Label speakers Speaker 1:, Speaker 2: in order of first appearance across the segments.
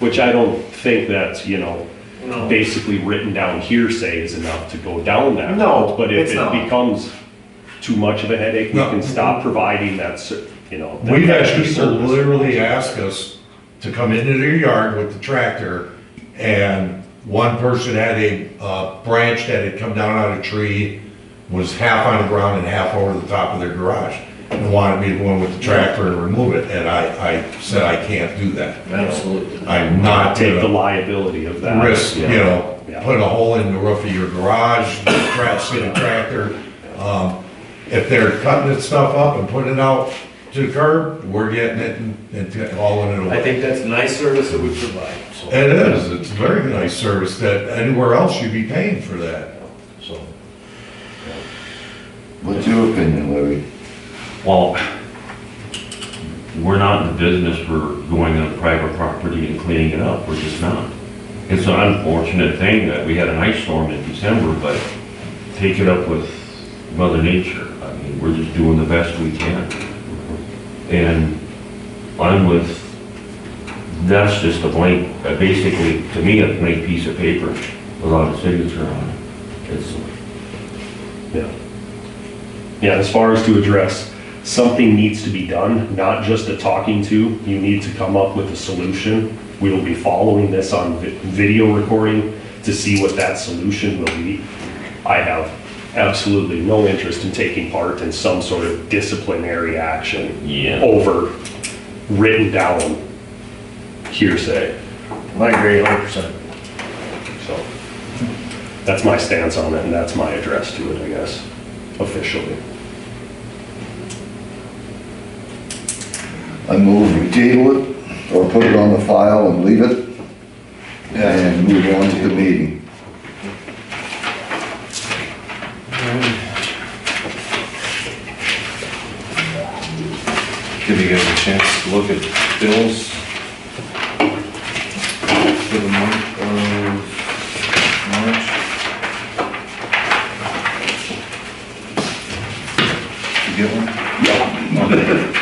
Speaker 1: Which I don't think that's, you know,
Speaker 2: No.
Speaker 1: basically written down hearsay is enough to go down that
Speaker 2: No,
Speaker 1: road. But if
Speaker 2: it's
Speaker 1: it
Speaker 2: not.
Speaker 1: becomes too much of a headache, we
Speaker 3: No.
Speaker 1: can stop providing that, ser- you know. that
Speaker 3: We've had
Speaker 1: extra
Speaker 3: people
Speaker 1: service.
Speaker 3: literally ask us to come into their yard with the tractor, and one person had a, uh, branch that had come down out of a tree, was half on the ground and half over the top of their garage, and wanted me to go in with the tractor and remove it, and I, I said, I can't do that.
Speaker 4: Absolutely.
Speaker 3: I'm not
Speaker 1: Take the
Speaker 3: gonna
Speaker 1: liability of that.
Speaker 3: risk, you
Speaker 1: yeah.
Speaker 3: know,
Speaker 1: Yeah.
Speaker 3: putting a hole in the roof of your garage, crash in a tractor. Um, If they're cutting that stuff up and putting it out to the curb, we're getting it and- and hauling it
Speaker 2: I
Speaker 3: away.
Speaker 2: think that's a nice service that we provide, so.
Speaker 3: It is, it's a very nice service that anywhere else you'd be paying for that.
Speaker 2: so.
Speaker 4: What's your opinion, Larry?
Speaker 5: Well, we're not in the business for going on private property and cleaning it up, we're just not. It's an unfortunate thing that we had an ice storm in December, but take it up with Mother Nature. I mean, we're just doing the best we can. And I'm with, that's just a blank, uh, basically, to me, a blank piece of paper without a signature on it. It's,
Speaker 1: Yeah, Yeah. as far as to address, something needs to be done, not just a talking to. You need to come up with a solution. We will be following this on vi- video recording to see what that solution will be. I have absolutely no interest in taking part in some sort of disciplinary action
Speaker 5: yeah.
Speaker 1: over written down hearsay.
Speaker 2: I agree a hundred percent.
Speaker 1: So that's my stance on it, and that's my address to it, I guess, officially.
Speaker 4: I move we table it or put it on the file and leave it and move on to the meeting.
Speaker 6: Give you guys a chance to look at bills for the month of March. You get one? Yeah.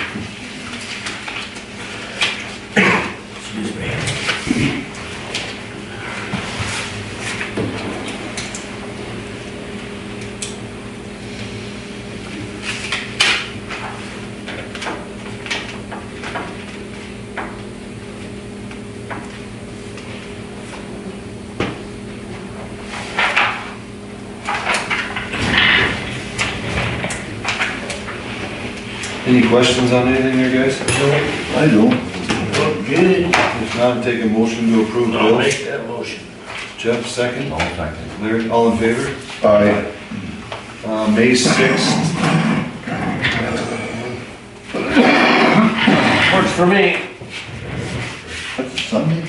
Speaker 6: Any questions on anything there, guys?
Speaker 4: I don't.
Speaker 2: Look good.
Speaker 6: If not, take a motion to approve
Speaker 2: I'll
Speaker 6: bills.
Speaker 2: make that motion.
Speaker 6: Jeff, second.
Speaker 5: All second.
Speaker 6: Larry, all in favor?
Speaker 4: I,
Speaker 6: Uh, May sixth,
Speaker 2: Works for me.
Speaker 4: that's Sunday?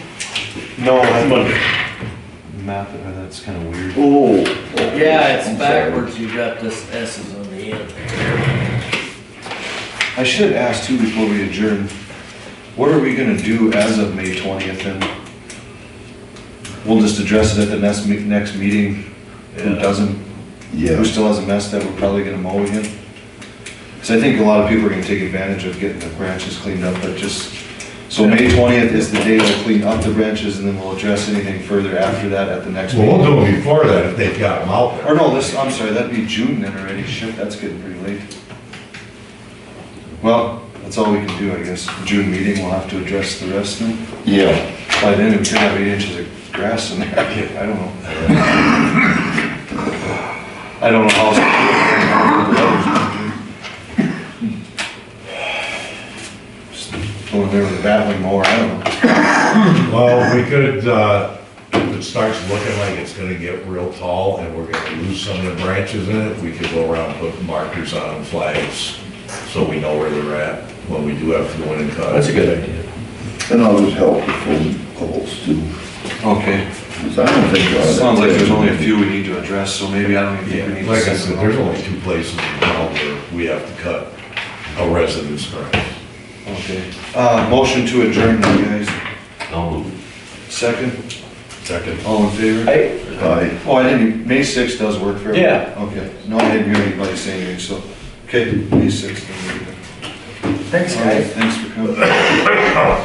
Speaker 1: No, it's Monday.
Speaker 6: map, uh, that's kind of weird.
Speaker 4: Oh.
Speaker 7: Yeah, it's
Speaker 4: I'm sorry.
Speaker 7: backwards, you got this S's on the end.
Speaker 6: I should ask too before we adjourn, what are we gonna do as of May twentieth and we'll just address it at the next, me- next meeting, who doesn't, who
Speaker 4: Yeah,
Speaker 6: still has a mess that we're probably gonna mow again? Cause I think a lot of people are gonna take advantage of getting the branches cleaned up, but just, so May twentieth is the day we'll clean up the branches and then we'll address anything further after that at the next
Speaker 3: Well, we'll
Speaker 6: meeting.
Speaker 3: do it before that if they've got them out there.
Speaker 6: Or no, this, I'm sorry, that'd be June then already, shit, that's getting pretty late. Well, that's all we can do, I guess, June meeting, we'll have to address the rest then.
Speaker 4: yeah.
Speaker 6: By then, we could have eight inches of grass in there, I don't know. I don't know how. Just Going there with a battling mower, I don't know.
Speaker 3: Well, we could, uh, if it starts looking like it's gonna get real tall and we're gonna lose some of the branches in it, we could go around and put markers on them, flags, so we know where they're at when we do have to go in and cut.
Speaker 2: That's a good idea.
Speaker 4: And I'll just help with phone calls too,
Speaker 6: Okay,
Speaker 4: because I don't think. uh,
Speaker 6: sounds like there's only a few we need to address, so maybe I don't even think we need
Speaker 3: Yeah,
Speaker 6: to.
Speaker 3: Like I
Speaker 6: send
Speaker 3: said,
Speaker 6: them
Speaker 3: there's
Speaker 6: out.
Speaker 3: only two places in town where we have to cut a resident's grass.
Speaker 6: Okay, uh, motion to adjourn, you guys,
Speaker 5: I'll move.
Speaker 6: second,
Speaker 3: Second.
Speaker 6: all in favor?
Speaker 2: Hey,
Speaker 4: I,
Speaker 6: Oh, I didn't, May sixth does work for everyone?
Speaker 2: Yeah.
Speaker 6: Okay, no, I didn't hear anybody say anything, so, okay, May sixth.
Speaker 2: thanks, guys.
Speaker 6: Thanks for coming.